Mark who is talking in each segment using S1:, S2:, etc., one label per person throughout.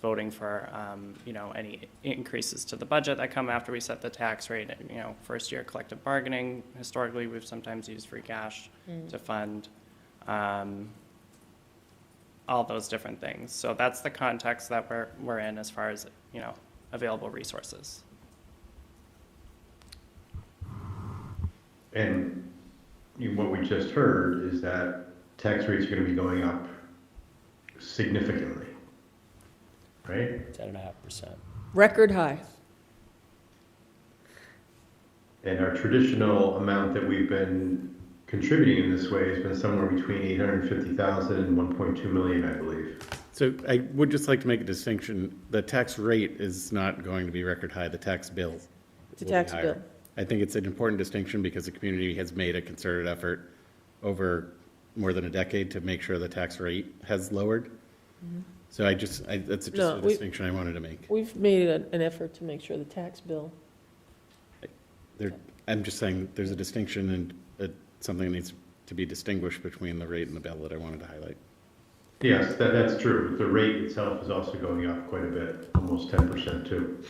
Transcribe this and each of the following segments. S1: voting for, um, you know, any increases to the budget that come after we set the tax rate. You know, first year collective bargaining, historically, we've sometimes used free cash to fund, um, all those different things. So that's the context that we're, we're in as far as, you know, available resources.
S2: And you- what we just heard is that tax rates are gonna be going up significantly, right?
S3: ten and a half percent.
S4: Record high.
S2: And our traditional amount that we've been contributing in this way has been somewhere between 850,000 and 1.2 million, I believe.
S5: So I would just like to make a distinction. The tax rate is not going to be record high. The tax bill.
S4: The
S5: will be
S4: tax
S5: higher.
S4: bill.
S5: I think it's an important distinction because the community has made a concerted effort over more than a decade to make sure the tax rate has lowered. So I just, I, that's just
S4: Mm-hmm. No,
S5: a
S4: we-
S5: distinction I wanted to make.
S4: We've made an an effort to make sure the tax bill,
S5: There, I'm just saying that there's a distinction and uh, something needs to be distinguished between the rate and the bill that I wanted to highlight.
S2: Yes, that, that's true. The rate itself is also going up quite a bit, almost 10% too.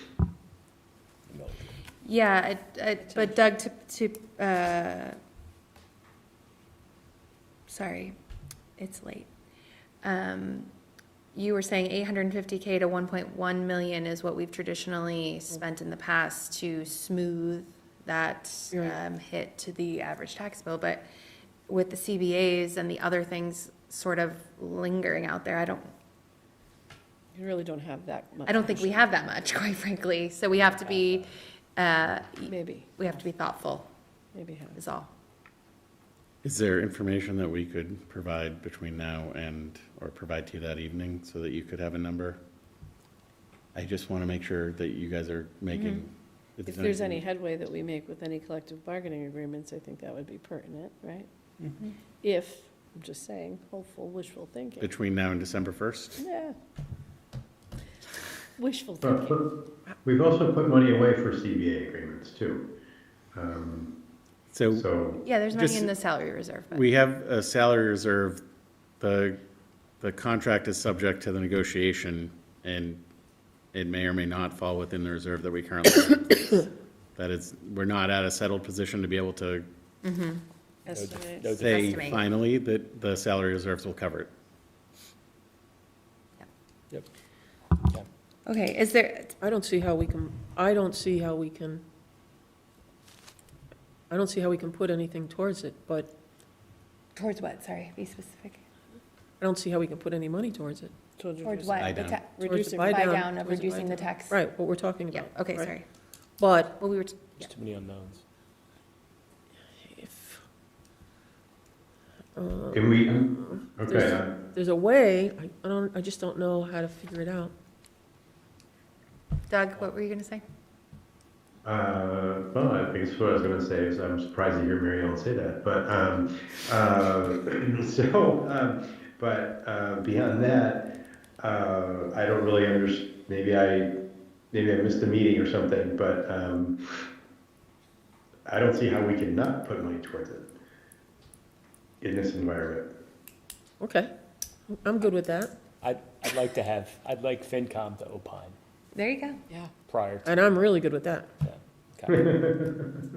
S6: Yeah, I- I- but Doug, to, to, uh, sorry, it's late. Um, You were saying 850K to 1.1 million is what we've traditionally spent in the past to smooth that
S4: Right.
S6: um, hit to the average tax bill, but with the CBAs and the other things sort of lingering out there, I don't,
S4: you really don't have that much.
S6: I don't think we have that much, quite frankly. So we have to be, uh,
S4: Maybe,
S6: we have to be thoughtful,
S4: maybe have.
S6: is all.
S5: Is there information that we could provide between now and, or provide to you that evening so that you could have a number? I just want to make sure that you guys are making.
S4: Mm-hmm. If there's any headway that we make with any collective bargaining agreements, I think that would be pertinent, right? If, I'm just saying, hopeful, wishful thinking.
S5: Between now and December 1st?
S4: Yeah. Wishful thinking.
S2: But- but We've also put money away for CBA agreements too. Um,
S5: So
S2: So
S6: Yeah, there's money
S5: Just-
S6: in the salary reserve fund.
S5: we have a salary reserve, the, the contract is subject to the negotiation and it may or may not fall within the reserve that we currently have. That is, we're not at a settled position to be able to
S4: Estimates.
S3: no
S5: say
S6: Estimate.
S5: finally that the salary reserves will cover it.
S3: Yep.
S6: Okay, is there,
S7: I don't see how we can, I don't see how we can, I don't see how we can put anything towards it, but
S6: towards what, sorry, be specific.
S7: I don't see how we can put any money towards it.
S4: Told you
S6: Towards
S4: there's-
S6: what?
S5: buy
S6: The
S5: down.
S6: ta-
S7: Towards the
S4: Reducing-
S6: Buy
S7: buy down,
S6: down of
S7: towards the buy
S6: reducing the
S7: down.
S6: tax.
S7: Right, what we're talking
S6: Yeah,
S7: about.
S6: okay,
S7: right?
S6: sorry.
S7: But
S6: Well, we were, t- yeah.
S3: There's too many unknowns.
S7: if, uh,
S2: can we, okay, uh,
S7: There's-
S2: I-
S7: um, there's a way, I- I don't, I just don't know how to figure it out.
S6: Doug, what were you gonna say?
S2: Uh, well, I think it's what I was going to say. Is I'm surprised to hear Mary Ellen say that, but um, uh, so, um, but uh, beyond that, uh, I don't really understand. Maybe I, maybe I missed the meeting or something, but um, I don't see how we can not put money towards it in this environment.
S7: Okay, I'm good with that,
S3: I'd, I'd like to have, I'd like FinCom to opine
S6: There you go.
S4: Yeah.
S3: prior to
S7: and I'm really good with that.
S3: that. Okay.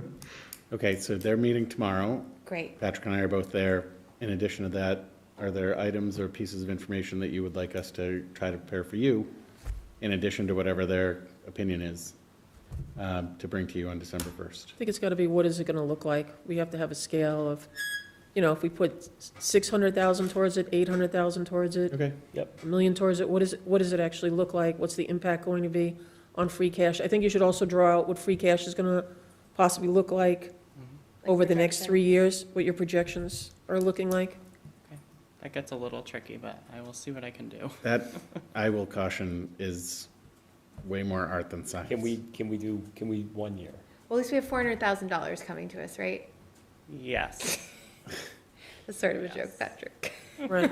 S5: Okay, so they're meeting tomorrow.
S6: Great.
S5: Patrick and I are both there. In addition to that, are there items or pieces of information that you would like us to try to prepare for you, in addition to whatever their opinion is, um, to bring to you on December 1st?
S7: I think it's got to be, what is it going to look like? We have to have a scale of, you know, if we put 600,000 towards it, 800,000 towards it,
S5: Okay,
S7: a million towards it, what is, what does it actually look like? What's the impact going to be on free cash? I think you should also draw out what free cash is gonna possibly look like over the next
S6: projection.
S7: three years, what your projections are looking like.
S1: That gets a little tricky, but I will see what I can do.
S5: that, I will caution, is way more art than science.
S3: Can we, can we do, can we one year?
S6: Well, at least we have four hundred thousand dollars coming to us, right?
S1: Yes.
S6: That's sort of a joke, Patrick.
S7: Right,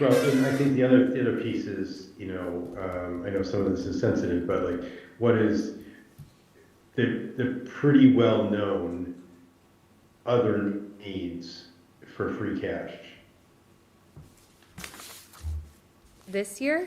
S2: Well, and I think the other, the other piece is, you know, um, I know some of this is sensitive, but like, what is, they're, they're pretty well-known other needs for free cash.
S6: This year?